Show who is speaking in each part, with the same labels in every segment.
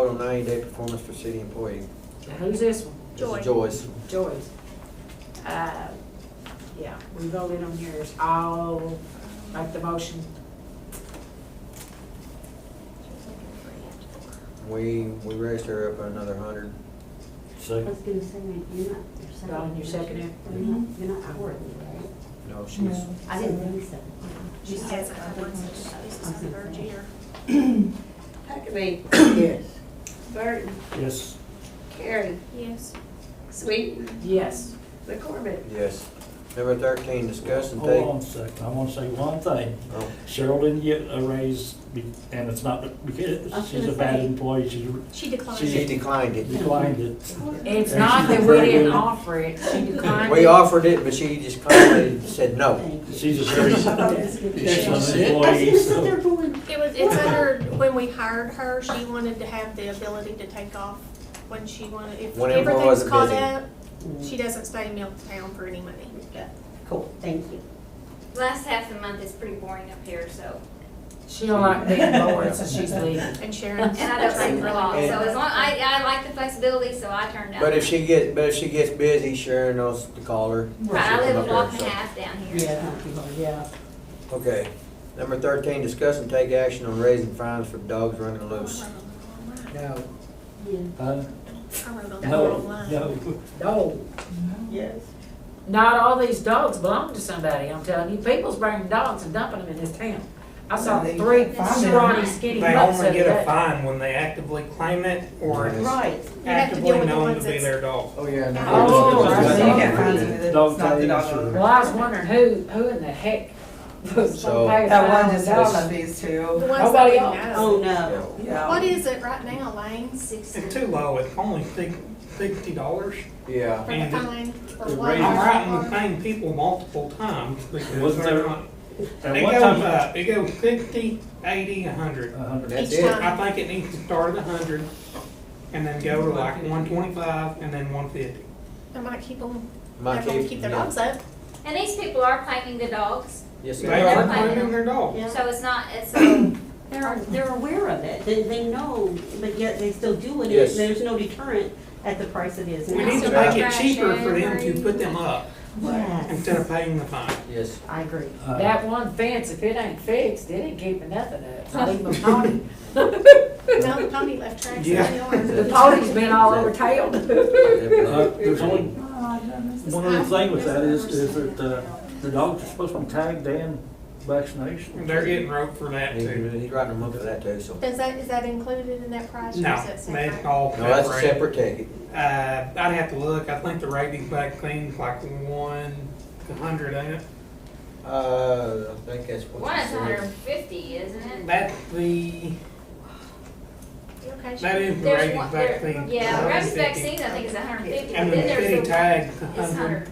Speaker 1: on ninety-day performance for city employee.
Speaker 2: Now, who's this one?
Speaker 1: This is
Speaker 3: Joy.
Speaker 1: Joyce.
Speaker 2: Joyce. Uh, yeah, we voted on yours. I'll make the motion.
Speaker 1: We, we raised her up another hundred.
Speaker 4: I was gonna say, man, you're not, you're second.
Speaker 2: Dawn, you're seconding it?
Speaker 4: You're not- You're not hourly, right?
Speaker 1: No, she's,
Speaker 4: I didn't think so.
Speaker 3: She says it once, she says it's the third year.
Speaker 5: Huckabee.
Speaker 4: Yes.
Speaker 5: Burton.
Speaker 6: Yes.
Speaker 5: Carrie.
Speaker 3: Yes.
Speaker 5: Sweeten.
Speaker 2: Yes.
Speaker 5: McCormick.
Speaker 1: yes. Number thirteen, discuss and
Speaker 6: Hold
Speaker 1: take.
Speaker 6: on a second, I want to say one thing.
Speaker 1: Oh,
Speaker 6: Cheryl didn't get a raise, be- and it's not
Speaker 4: I
Speaker 6: because
Speaker 4: was
Speaker 6: she's a
Speaker 4: gonna
Speaker 6: bad
Speaker 4: say-
Speaker 6: employee, she
Speaker 3: She declined.
Speaker 1: She declined it.
Speaker 6: declined it.
Speaker 2: It's not that we didn't offer it, she declined it.
Speaker 1: We offered it, but she just kindly said no.
Speaker 4: Thank you.
Speaker 6: She's a very uh,
Speaker 4: I thought it was gonna be-
Speaker 1: Yes,
Speaker 4: I was
Speaker 6: excellent employee,
Speaker 4: gonna sit there
Speaker 6: so.
Speaker 4: going,
Speaker 3: It was, it's under, when we hired her, she wanted to have the ability to take off when she wanted, if
Speaker 1: When everyone wasn't
Speaker 3: everything's caught
Speaker 1: busy.
Speaker 3: up,
Speaker 4: Mm.
Speaker 3: she doesn't stay in Milton for any money.
Speaker 4: cool, thank you.
Speaker 7: Last half of the month is pretty boring up here, so,
Speaker 2: She don't like being bored, so she's leaving.
Speaker 3: And Sharon's.
Speaker 7: and I don't sleep for long, so
Speaker 1: And-
Speaker 7: as long, I, I like the flexibility, so I turned down.
Speaker 1: But if she gets, but if she gets busy, Sharon knows to call her.
Speaker 7: Right, I
Speaker 1: She'll come
Speaker 7: live
Speaker 1: up here,
Speaker 7: a block and
Speaker 1: so.
Speaker 7: a half down here.
Speaker 4: Yeah, thank you, yeah.
Speaker 1: Okay. Number thirteen, discuss and take action on raising fines for dogs running loose.
Speaker 2: No.
Speaker 4: Yeah.
Speaker 6: Uh,
Speaker 3: I wrote on the
Speaker 6: No,
Speaker 3: wrong line.
Speaker 6: no,
Speaker 2: No.
Speaker 5: Yes.
Speaker 2: Not all these dogs belong to somebody, I'm telling you. People's bringing dogs and dumping them in this town. I saw
Speaker 8: They-
Speaker 2: three
Speaker 7: Find
Speaker 2: scrawny
Speaker 7: them.
Speaker 2: skinny
Speaker 8: They
Speaker 2: pups the
Speaker 8: only
Speaker 2: other
Speaker 8: get a
Speaker 2: day.
Speaker 8: fine when they actively claim it or
Speaker 1: Yes.
Speaker 4: Right.
Speaker 3: You have to deal
Speaker 8: actively
Speaker 3: with the
Speaker 8: known
Speaker 3: ones
Speaker 8: to be
Speaker 3: that's.
Speaker 8: their dog.
Speaker 1: Oh, yeah.
Speaker 3: no.
Speaker 2: Oh, I see.
Speaker 8: You get
Speaker 6: fines
Speaker 8: if
Speaker 6: it's Dog not the dog tags or- owner.
Speaker 2: Well, I was wondering who, who in the heck was
Speaker 1: So-
Speaker 2: gonna pay a
Speaker 8: That
Speaker 2: fine
Speaker 8: one
Speaker 2: to
Speaker 8: is
Speaker 2: dogs?
Speaker 8: one of these two.
Speaker 3: The ones that
Speaker 2: Nobody
Speaker 3: we
Speaker 2: else.
Speaker 3: know.
Speaker 4: Oh, no.
Speaker 3: What is it right now, Lane?
Speaker 7: Six.
Speaker 8: It's too low, it's only six- sixty dollars.
Speaker 1: Yeah.
Speaker 3: For the
Speaker 8: And the-
Speaker 3: fine for
Speaker 6: the
Speaker 3: what?
Speaker 6: raise-
Speaker 8: I'm writing the same people multiple times because
Speaker 6: Wasn't
Speaker 8: they're
Speaker 6: there-
Speaker 8: not.
Speaker 6: At
Speaker 8: It
Speaker 6: one
Speaker 8: goes
Speaker 6: time, uh,
Speaker 8: up, it goes fifty, eighty, a hundred.
Speaker 6: a hundred.
Speaker 1: That's
Speaker 3: Each
Speaker 1: it.
Speaker 3: time.
Speaker 8: I think it needs to start at a hundred and then go to like one twenty-five and then one fifty.
Speaker 3: They might keep them,
Speaker 1: My
Speaker 3: they're gonna
Speaker 1: keep-
Speaker 3: keep their
Speaker 1: yeah.
Speaker 3: dogs up.
Speaker 7: And these people are claiming the dogs,
Speaker 1: Yes,
Speaker 8: They
Speaker 1: they are.
Speaker 8: are claiming their dog.
Speaker 4: Yeah.
Speaker 7: so it's not, it's, um,
Speaker 4: They're, they're aware of it, they, they know, but yet they still do it,
Speaker 1: Yes.
Speaker 4: and there's no deterrent at the price it is
Speaker 8: We
Speaker 4: now.
Speaker 8: need to
Speaker 1: Yeah.
Speaker 8: make it cheaper for them to put them up instead of paying the fine.
Speaker 1: Yes.
Speaker 4: I agree.
Speaker 6: Uh,
Speaker 2: That one fence, if it ain't fixed, it ain't keeping nothing up, not even a pony.
Speaker 3: No, the pony left tracks in the
Speaker 8: Yeah.
Speaker 3: yard.
Speaker 2: The pony's been all over tailed.
Speaker 6: uh,
Speaker 1: Yep.
Speaker 6: There's only, one other thing with that is, is that, uh, the dogs are supposed to be tagged and vaccination.
Speaker 8: They're getting rope for that
Speaker 1: He-
Speaker 8: too.
Speaker 1: He's writing them up for that too, so.
Speaker 3: Does that, is that included in that price? or is
Speaker 8: No,
Speaker 3: that
Speaker 8: that's
Speaker 3: separate?
Speaker 8: all
Speaker 1: No, that's a
Speaker 8: separate.
Speaker 1: separate ticket.
Speaker 8: Uh, I'd have to look, I think the rabies vaccines like one, a hundred, ain't it?
Speaker 1: Uh, I think that's what.
Speaker 7: one
Speaker 1: you
Speaker 7: is
Speaker 1: said.
Speaker 7: hundred and fifty, isn't it?
Speaker 8: That's the,
Speaker 3: You okay,
Speaker 8: that
Speaker 3: Sharon?
Speaker 8: is the
Speaker 7: There's
Speaker 8: rabies
Speaker 7: one- there-
Speaker 8: vaccine.
Speaker 7: Yeah, rabies
Speaker 8: 150.
Speaker 7: vaccine, I think is hundred and fifty,
Speaker 8: And
Speaker 7: but
Speaker 8: the
Speaker 7: then there's
Speaker 8: city
Speaker 7: the,
Speaker 8: tag's a
Speaker 7: it's
Speaker 8: hundred,
Speaker 7: hundred.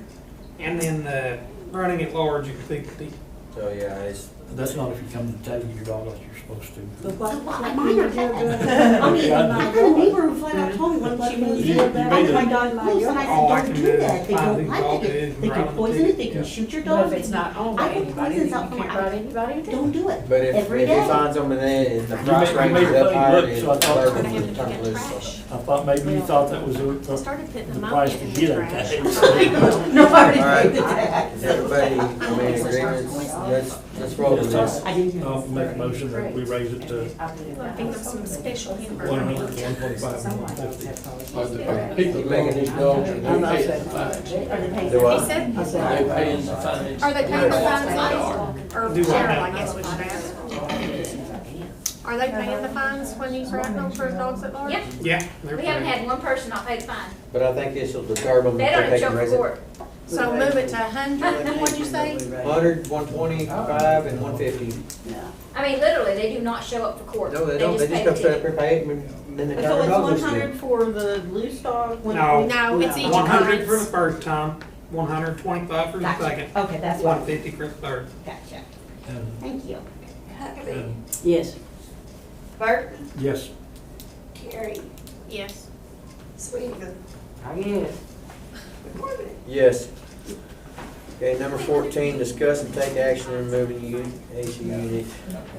Speaker 8: and then the running at large is fifty.
Speaker 1: So, yeah, it's,
Speaker 6: That's not if you come to tag your dog like you're supposed to.
Speaker 4: I mean, I mean, I had a neighbor who flat out told me when she moved
Speaker 6: You-
Speaker 4: in,
Speaker 6: you
Speaker 4: I
Speaker 6: made
Speaker 4: my
Speaker 6: it.
Speaker 4: dog loose, and
Speaker 8: All I
Speaker 4: I said, don't
Speaker 8: can do
Speaker 4: do
Speaker 8: is
Speaker 4: that, they
Speaker 8: find
Speaker 4: don't
Speaker 8: who
Speaker 4: like
Speaker 8: dog it
Speaker 4: it,
Speaker 8: is
Speaker 4: they
Speaker 8: and
Speaker 4: can
Speaker 8: round
Speaker 4: poison
Speaker 8: it.
Speaker 4: it, they
Speaker 1: Yeah.
Speaker 4: can shoot your
Speaker 2: But
Speaker 4: dog.
Speaker 2: if it's not owned
Speaker 4: I
Speaker 2: by
Speaker 4: put
Speaker 2: anybody, then
Speaker 4: poisons
Speaker 2: you
Speaker 4: out for
Speaker 2: can't
Speaker 4: my-
Speaker 2: write anybody to do
Speaker 4: Don't do it,
Speaker 1: but if, if
Speaker 4: every
Speaker 1: he
Speaker 4: day.
Speaker 1: finds them and then if the
Speaker 6: You
Speaker 1: price
Speaker 6: made- you
Speaker 1: range
Speaker 6: made
Speaker 1: is
Speaker 6: a
Speaker 1: up
Speaker 6: funny
Speaker 1: higher,
Speaker 6: look,
Speaker 1: it's
Speaker 6: so I thought-
Speaker 3: I
Speaker 1: burden
Speaker 3: have
Speaker 1: to
Speaker 3: to
Speaker 1: turn
Speaker 3: get
Speaker 1: loose.
Speaker 3: trash.
Speaker 6: I thought maybe you thought that was a,
Speaker 3: I
Speaker 6: a-
Speaker 3: started putting
Speaker 6: the
Speaker 3: them up
Speaker 6: price
Speaker 3: in
Speaker 6: to
Speaker 3: the
Speaker 6: get it.
Speaker 3: trash.
Speaker 4: No,
Speaker 1: All
Speaker 4: I
Speaker 1: right.
Speaker 4: didn't do that.
Speaker 1: Is everybody, I mean, agreements, let's, let's roll with this.
Speaker 4: I didn't hear
Speaker 6: I'll
Speaker 4: this.
Speaker 6: make a motion that we raise it to
Speaker 3: I think of some special hamburger.
Speaker 6: one hundred, one twenty-five, one fifty.
Speaker 9: But the people making these dogs, they pay the fines.
Speaker 4: Or the
Speaker 1: Do
Speaker 3: He
Speaker 4: pace.
Speaker 1: I?
Speaker 3: said,
Speaker 4: I said,
Speaker 9: They paying the fines.
Speaker 3: are they paying the fines, Lane? or
Speaker 8: Do what?
Speaker 3: Cheryl, I guess we should ask. Are they paying the fines when you write them for dogs at large?
Speaker 7: Yeah,
Speaker 8: Yeah. they're
Speaker 7: we haven't
Speaker 8: pretty-
Speaker 7: had one person not pay the fine.
Speaker 1: But I think this will disturb them
Speaker 7: They don't
Speaker 1: if
Speaker 7: even
Speaker 1: they
Speaker 7: show
Speaker 1: can
Speaker 7: up
Speaker 1: raise
Speaker 7: for
Speaker 1: it.
Speaker 7: court.
Speaker 3: So move it to a hundred, what'd you say?
Speaker 1: Hundred, one twenty-five, and one fifty.
Speaker 7: I mean, literally, they do not show up for court.
Speaker 1: No, they don't, they
Speaker 7: pay
Speaker 1: just
Speaker 7: the
Speaker 1: come straight up
Speaker 7: ticket.
Speaker 1: here, pay it, and then they turn
Speaker 4: So
Speaker 1: it
Speaker 4: it's
Speaker 1: over.
Speaker 4: one hundred for the loose dog? one-
Speaker 8: No.
Speaker 3: No, it's each
Speaker 8: One hundred for the
Speaker 3: occurrence.
Speaker 8: first time, one hundred twenty-five for the
Speaker 4: Gotcha.
Speaker 8: second,
Speaker 4: Okay, that's
Speaker 8: one
Speaker 4: what,
Speaker 8: fifty for the third.
Speaker 4: gotcha,
Speaker 6: And-
Speaker 4: thank you.
Speaker 5: Huckabee.
Speaker 6: and
Speaker 4: Yes.
Speaker 5: Burton.
Speaker 6: Yes,
Speaker 5: Carrie.
Speaker 3: Yes.
Speaker 5: Sweeten.
Speaker 2: I guess.
Speaker 5: McCormick.
Speaker 1: Yes. Okay, number fourteen, discuss and take action in removing u- AC unit.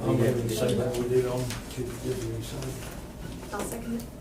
Speaker 6: I'm going to say that we did on, to give you some.
Speaker 3: I'll second it.